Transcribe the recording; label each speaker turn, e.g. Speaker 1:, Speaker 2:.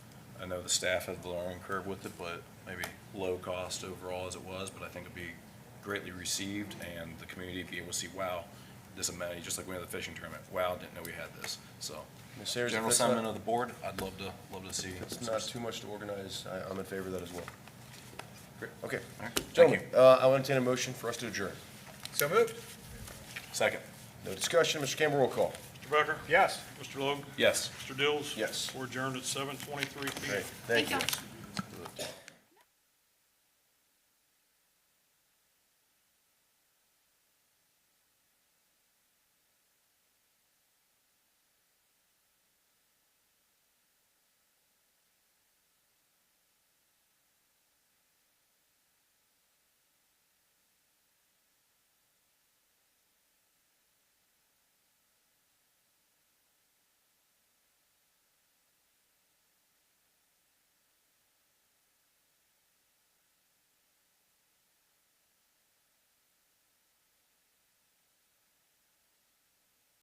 Speaker 1: know the staff has the learning curve with it, but maybe low cost overall as it was, but I think it'd be greatly received and the community be able to see, wow, this amenity, just like we had the fishing tournament, wow, didn't know we had this, so.
Speaker 2: And seriously,
Speaker 1: General
Speaker 2: if it's not-
Speaker 1: sentiment of the board, I'd love to, love to see.
Speaker 2: If it's not too much to organize, I, I'm in favor of that as well. Great, okay.
Speaker 1: All right, thank
Speaker 2: Gentlemen,
Speaker 1: you.
Speaker 2: uh, I will entertain a motion for us to adjourn.
Speaker 3: So moved.
Speaker 1: Second,
Speaker 2: No discussion, Mr. Campbell, roll call.
Speaker 4: Mr. Becker?
Speaker 3: Yes.
Speaker 4: Mr. Logue?
Speaker 1: yes.
Speaker 4: Mr. Dills?
Speaker 2: Yes.
Speaker 4: We're adjourned at seven twenty-three PM.
Speaker 2: Great, thank you.
Speaker 5: Thank